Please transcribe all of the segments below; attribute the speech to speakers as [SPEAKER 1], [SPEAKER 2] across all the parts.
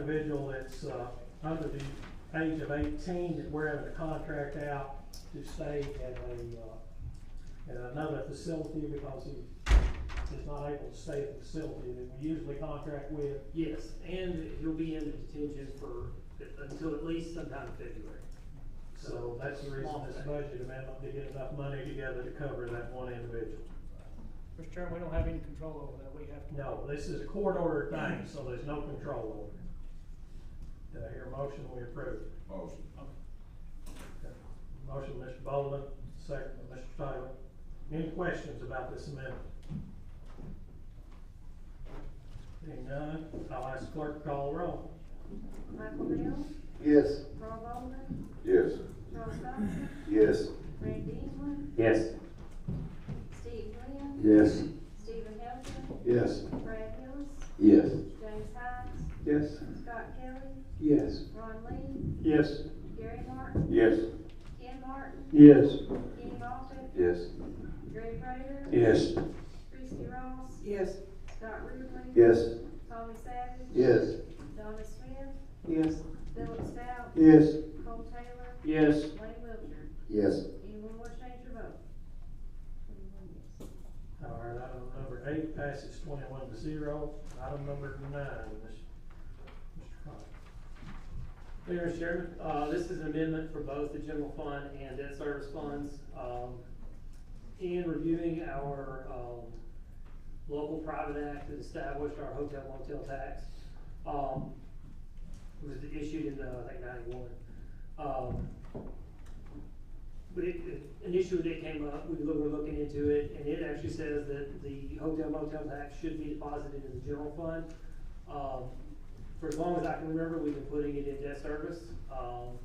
[SPEAKER 1] individual that's, uh, under the age of eighteen, that we're having a contract out to stay at a, uh, at another facility because he is not able to stay at the facility that we usually contract with.
[SPEAKER 2] Yes, and he'll be in detention for, until at least sometime in February.
[SPEAKER 1] So that's the reason this budget amendment, to get enough money together to cover that one individual.
[SPEAKER 3] Mr. Chairman, we don't have any control over that, we have to.
[SPEAKER 1] No, this is a court order thing, so there's no control over it. Do I hear a motion, we approve?
[SPEAKER 4] Motion.
[SPEAKER 1] Motion, Mr. Bowman, second, by Mr. Taylor. Any questions about this amendment? Seeing none, I'll ask clerk to call the roll.
[SPEAKER 5] Michael Bell,
[SPEAKER 6] Yes.
[SPEAKER 5] Carl Baldwin,
[SPEAKER 4] Yes.
[SPEAKER 5] Charles Dodson,
[SPEAKER 6] Yes.
[SPEAKER 5] Randy England,
[SPEAKER 6] Yes.
[SPEAKER 5] Steve Glenn,
[SPEAKER 6] Yes.
[SPEAKER 5] Stephen Hilton,
[SPEAKER 6] Yes.
[SPEAKER 5] Brad Hillis,
[SPEAKER 6] Yes.
[SPEAKER 5] James Hines,
[SPEAKER 6] Yes.
[SPEAKER 5] Scott Kelly,
[SPEAKER 6] Yes.
[SPEAKER 5] Ron Lee,
[SPEAKER 6] Yes.
[SPEAKER 5] Gary Martin,
[SPEAKER 6] Yes.
[SPEAKER 5] Ken Martin,
[SPEAKER 6] Yes.
[SPEAKER 5] Kenny Moffitt,
[SPEAKER 6] Yes.
[SPEAKER 5] Greg Prater,
[SPEAKER 6] Yes.
[SPEAKER 5] Christie Ross,
[SPEAKER 3] Yes.
[SPEAKER 5] Scott Ruble,
[SPEAKER 6] Yes.
[SPEAKER 5] Tommy Savage,
[SPEAKER 6] Yes.
[SPEAKER 5] Donna Smith,
[SPEAKER 6] Yes.
[SPEAKER 5] Philip Stout,
[SPEAKER 6] Yes.
[SPEAKER 5] Cole Taylor,
[SPEAKER 6] Yes.
[SPEAKER 5] Wayne Wilcher.
[SPEAKER 6] Yes.
[SPEAKER 5] Anyone want to change your vote? Anyone, yes.
[SPEAKER 1] All right, item number eight passes twenty-one to zero. Item number nine, Mr. Carter.
[SPEAKER 2] Mayor and Chairman, uh, this is an amendment for both the general fund and debt service funds. Um, in reviewing our, um, local private act that established our hotel motel tax, um, it was issued in, uh, I think ninety-one. Um, but it, it- an issue that came up, we were looking into it, and it actually says that the hotel motel tax should be deposited in the general fund. Um, for as long as I can remember, we've been putting it in debt service. Um,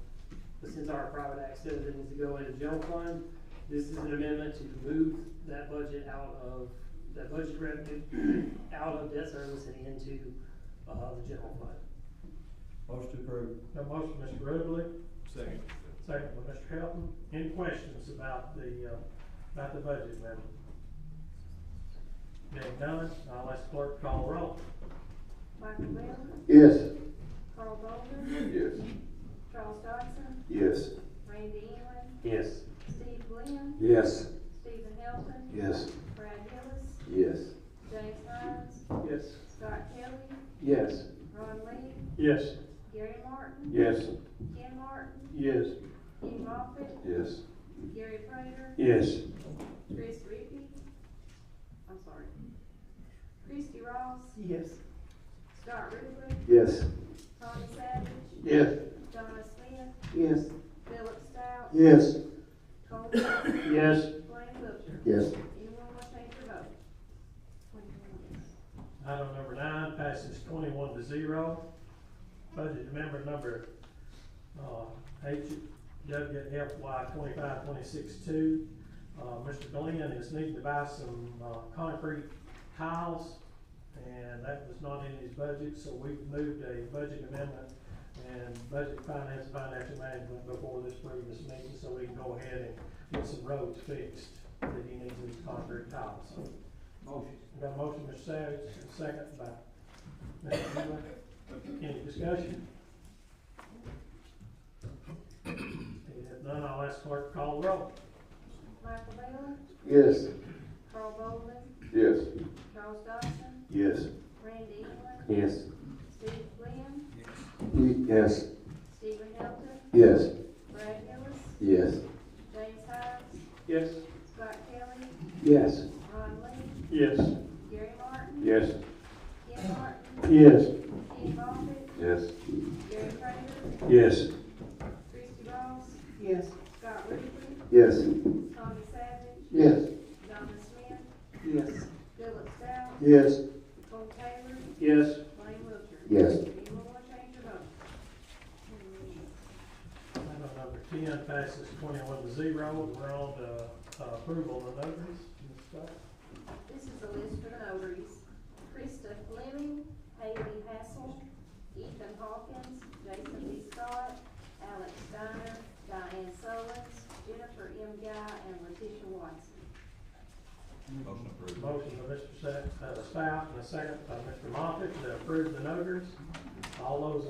[SPEAKER 2] but since our private act says it needs to go into general fund, this is an amendment to move that budget out of, that budget revenue out of debt service and into, uh, the general fund.
[SPEAKER 7] Motion approved.
[SPEAKER 1] Got a motion, Mr. Ruble,
[SPEAKER 4] Second.
[SPEAKER 1] second by Mr. Helton. Any questions about the, uh, about the budget amendment? Being none, I'll ask clerk to call the roll.
[SPEAKER 5] Michael Bell,
[SPEAKER 6] Yes.
[SPEAKER 5] Carl Baldwin,
[SPEAKER 4] Yes.
[SPEAKER 5] Charles Dodson,
[SPEAKER 6] Yes.
[SPEAKER 5] Randy England,
[SPEAKER 6] Yes.
[SPEAKER 5] Steve Glenn,
[SPEAKER 6] Yes.
[SPEAKER 5] Stephen Hilton,
[SPEAKER 6] Yes.
[SPEAKER 5] Brad Hillis,
[SPEAKER 6] Yes.
[SPEAKER 5] James Hines,
[SPEAKER 6] Yes.
[SPEAKER 5] Scott Kelly,
[SPEAKER 6] Yes.
[SPEAKER 5] Ron Lee,
[SPEAKER 6] Yes.
[SPEAKER 5] Gary Martin,
[SPEAKER 6] Yes.
[SPEAKER 5] Ken Martin,
[SPEAKER 6] Yes.
[SPEAKER 5] Kenny Moffitt,
[SPEAKER 6] Yes.
[SPEAKER 5] Gary Prater,
[SPEAKER 6] Yes.
[SPEAKER 5] Chris Rippey, I'm sorry, Christie Ross,
[SPEAKER 3] Yes.
[SPEAKER 5] Scott Ruble,
[SPEAKER 6] Yes.
[SPEAKER 5] Tommy Savage,
[SPEAKER 6] Yes.
[SPEAKER 5] Donna Smith,
[SPEAKER 6] Yes.
[SPEAKER 5] Philip Stout,
[SPEAKER 6] Yes.
[SPEAKER 5] Cole Taylor,
[SPEAKER 6] Yes.
[SPEAKER 5] Blaine Wiltshire.
[SPEAKER 6] Yes.
[SPEAKER 5] Anyone want to change their vote? Twenty-one yes.
[SPEAKER 1] Item number nine passes twenty-one to zero. Budget amendment number, uh, HWFY twenty-five, twenty-six, two. Uh, Mr. Glenn is needing to buy some, uh, concrete tiles, and that was not in his budget, so we moved a budget amendment and budget finance, financial management before this previous meeting, so we can go ahead and get some roads fixed that he needs these concrete tiles. So
[SPEAKER 7] Motion.
[SPEAKER 1] we Got a motion, Mr. Savage, and a second by Mr. Miller. Any discussion? If none, I'll ask clerk to call the roll.
[SPEAKER 5] Michael Bell,
[SPEAKER 6] Yes.
[SPEAKER 5] Carl Bolden,
[SPEAKER 6] Yes.
[SPEAKER 5] Charles Dodson,
[SPEAKER 6] Yes.
[SPEAKER 5] Randy England,
[SPEAKER 6] Yes.
[SPEAKER 5] Steve Glenn,
[SPEAKER 6] Yes.
[SPEAKER 5] Stephen Hilton,
[SPEAKER 6] Yes.
[SPEAKER 5] Brad Hillis,
[SPEAKER 6] Yes.
[SPEAKER 5] James Hines,
[SPEAKER 6] Yes.
[SPEAKER 5] Scott Kelly,
[SPEAKER 6] Yes.
[SPEAKER 5] Ron Lee,
[SPEAKER 6] Yes.
[SPEAKER 5] Gary Martin,
[SPEAKER 6] Yes.
[SPEAKER 5] Ken Martin,
[SPEAKER 6] Yes.
[SPEAKER 5] Kenny Moffitt,
[SPEAKER 6] Yes.
[SPEAKER 5] Gary Prater,
[SPEAKER 6] Yes.
[SPEAKER 5] Christie Ross,
[SPEAKER 3] Yes.
[SPEAKER 5] Scott Ruble,
[SPEAKER 6] Yes.
[SPEAKER 5] Tommy Savage,
[SPEAKER 6] Yes.
[SPEAKER 5] Donna Smith,
[SPEAKER 3] Yes.
[SPEAKER 5] Philip Stout,
[SPEAKER 6] Yes.
[SPEAKER 5] Cole Taylor,
[SPEAKER 6] Yes.
[SPEAKER 5] Blaine Wiltshire.
[SPEAKER 6] Yes.
[SPEAKER 5] Anyone want to change their vote? Twenty-one yes.
[SPEAKER 1] Item number ten passes twenty-one to zero. We're on to uh, approval of notaries. Ms. Scott?
[SPEAKER 5] This is a list of notaries. Krista Fleming, Haley Hassel, Ethan Hawkins, Jason B. Scott, Alex Steiner, Diane Solins, Jennifer M. Guy, and Letitia Watson.
[SPEAKER 4] Motion approved.
[SPEAKER 1] Motion by Mr. Sa- uh, Stout and a second by Mr. Moffitt to approve the notaries. All those in